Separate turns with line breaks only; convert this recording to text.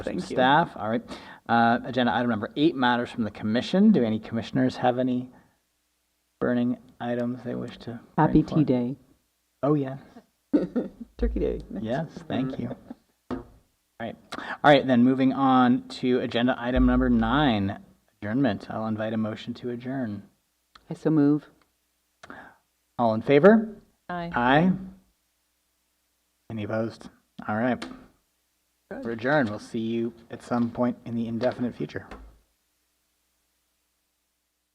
Thank you.
Staff, all right. Uh, Agenda item number eight, matters from the commission. Do any commissioners have any burning items they wish to? bring
Happy Tea
forward?
Day.
Oh, yeah.
Turkey Day.
Yes,
Mm.
thank you. All right, all right, then moving on to agenda item number nine, adjournment. I'll invite a motion to adjourn.
I so move.
All in favor?
Aye.
Aye. Any opposed? All right. We're adjourned. We'll see you at some point in the indefinite future.